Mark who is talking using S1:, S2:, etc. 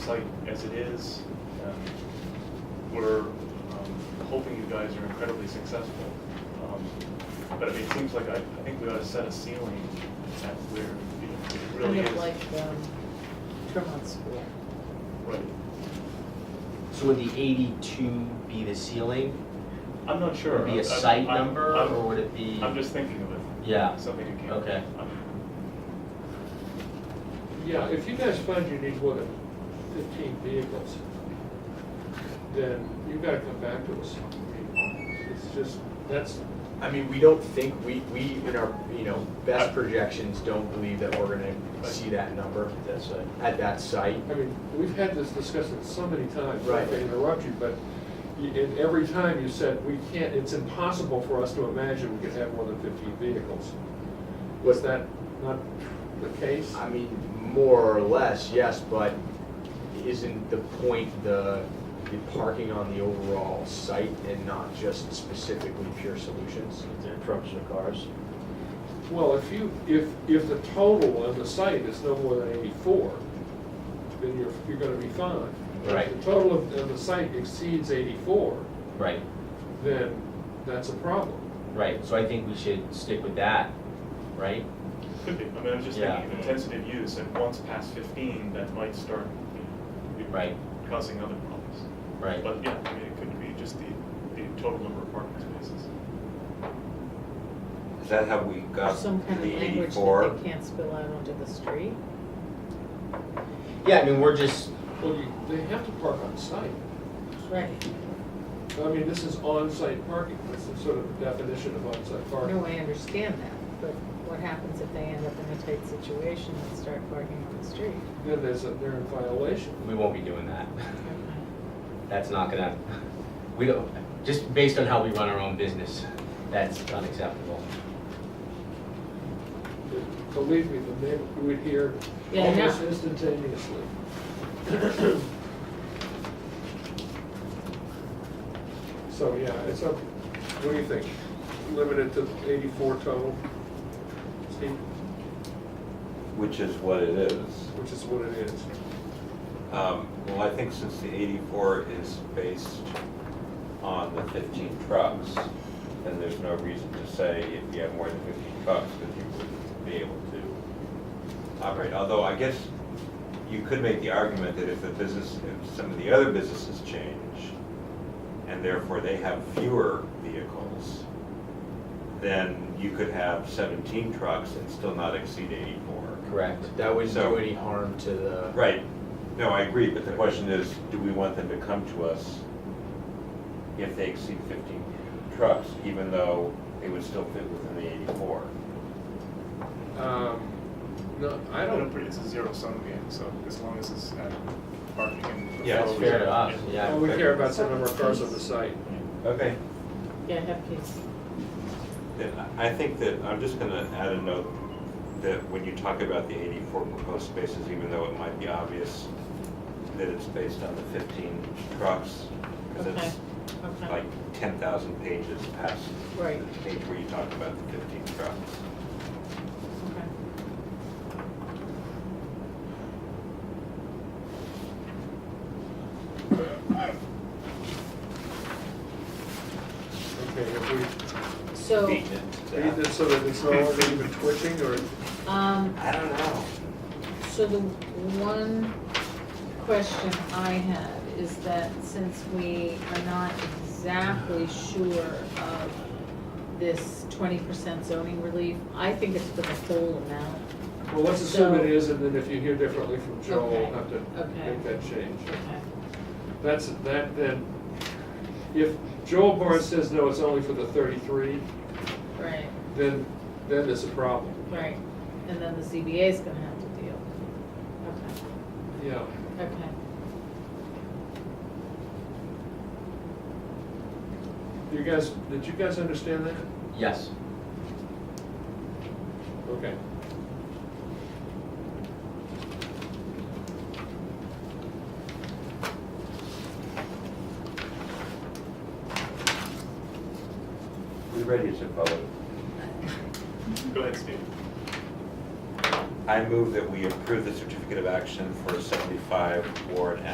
S1: site as it is. Um, We're um, hoping you guys are incredibly successful. Um, But I mean, it seems like I, I think we ought to set a ceiling at where you know, it really
S2: Kind
S1: is.
S2: of like, um, Tremont School.
S1: Right.
S3: So would the eighty-two be the ceiling?
S1: I'm not sure.
S3: Would it be a
S1: I'm- I'm-
S3: site
S1: I'm-
S3: number,
S1: I'm-
S3: or would it be?
S1: I'm just thinking of it.
S3: Yeah.
S1: Something you can't.
S3: Okay.
S4: Yeah, if you guys find you need more than fifteen vehicles, then you gotta come back to us. I mean, It's just, that's,
S5: I mean, we don't think, we, we, in our, you know,
S1: I-
S5: best projections, don't believe that we're gonna see that number
S1: That's right.
S5: at that site.
S4: I mean, we've had this discussion so many times, not
S5: Right.
S4: to interrupt you, but you- and every time you said, we can't, it's impossible for us to imagine we could have more than fifteen vehicles. Was that not the case?
S5: I mean, more or less, yes, but isn't the point the, the parking on the overall site and not just specifically Pure Solutions?
S6: trucks or cars.
S4: Well, if you, if, if the total on the site is no more than eighty-four, then you're, you're gonna be fine. But
S3: Right.
S4: If the total of, of the site exceeds eighty-four,
S3: Right,
S4: then that's a problem.
S3: right, so I think we should stick with that, right?
S1: Could be, I mean, I'm just
S3: Yeah.
S1: thinking of intensity of use, and once past fifteen, that might start, you know,
S3: Right.
S1: causing other problems.
S3: Right.
S1: But yeah, I mean, it could be just the, the total number of parking spaces.
S6: Is that how we
S2: Or
S6: got the
S2: some kind of language
S6: eighty-four?
S2: that they can't spill out onto the street.
S3: Yeah, I mean, we're just,
S4: Well, you, they have to park on site.
S2: Right.
S4: I mean, this is on-site parking, that's the sort of definition of on-site
S2: No,
S4: parking.
S2: I understand that, but what happens if they end up in a tight situation and start parking on the street?
S4: Then there's a, they're in violation.
S3: we won't be doing that. That's not gonna, we don't, just based on how we run our own business, that's unacceptable.
S4: Believe me, the neighbor we would hear
S2: Yeah, I know.
S4: almost instantaneously. So, yeah, it's up, what do you think? Limited to eighty-four total, Steve,
S6: Which is what it is.
S4: which is what it is.
S6: Um, Well, I think since the eighty-four is based on the fifteen trucks, then there's no reason to say if you have more than fifteen trucks, because you wouldn't be able to operate. Although I guess you could make the argument that if the business, if some of the other businesses change, and therefore they have fewer vehicles, then you could have seventeen trucks and still not exceed eighty-four.
S3: Correct.
S5: That wouldn't
S6: So-
S5: do any harm to the.
S6: Right, no, I agree, but the question is, do we want them to come to us if they exceed fifteen trucks, even though they would still fit within the eighty-four?
S4: Um, No, I
S1: I
S4: don't,
S1: don't, it's a zero sum game, so as long as it's at parking and.
S6: Yeah, it's
S3: fair to us, yeah.
S4: all we care about is the number of cars on the site.
S6: Okay.
S2: Yeah, have kids.
S6: Then I- I think that, I'm just gonna add a note that when you talk about the eighty-four proposed spaces, even though it might be obvious that it's based on the fifteen trucks, because
S2: Okay,
S6: it's
S2: okay.
S6: like ten thousand pages past
S2: Right.
S6: the page where you talk about the fifteen trucks.
S2: Okay.
S4: Okay, if we
S2: So,
S4: read this so that it's no longer even twitching, or
S2: um,
S6: I don't know.
S2: so the one question I had is that since we are not exactly sure of this twenty percent zoning relief, I think it's for the whole amount.
S4: Well, let's assume
S2: So-
S4: it is, and then if you hear differently from Joel, we'll have to
S2: Okay, okay.
S4: make that change.
S2: Okay.
S4: That's, that then, if Joel Barnes says, no, it's only for the thirty-three,
S2: Right,
S4: then, then there's a problem.
S2: right. And then the ZBA is gonna have to deal. Okay,
S4: Yeah.
S2: okay.
S4: You guys, did you guys understand that?
S3: Yes.
S4: Okay.
S6: We ready to vote.
S1: Go ahead, Steve.
S6: I, I move that we approve the certificate of action for seventy-five Ward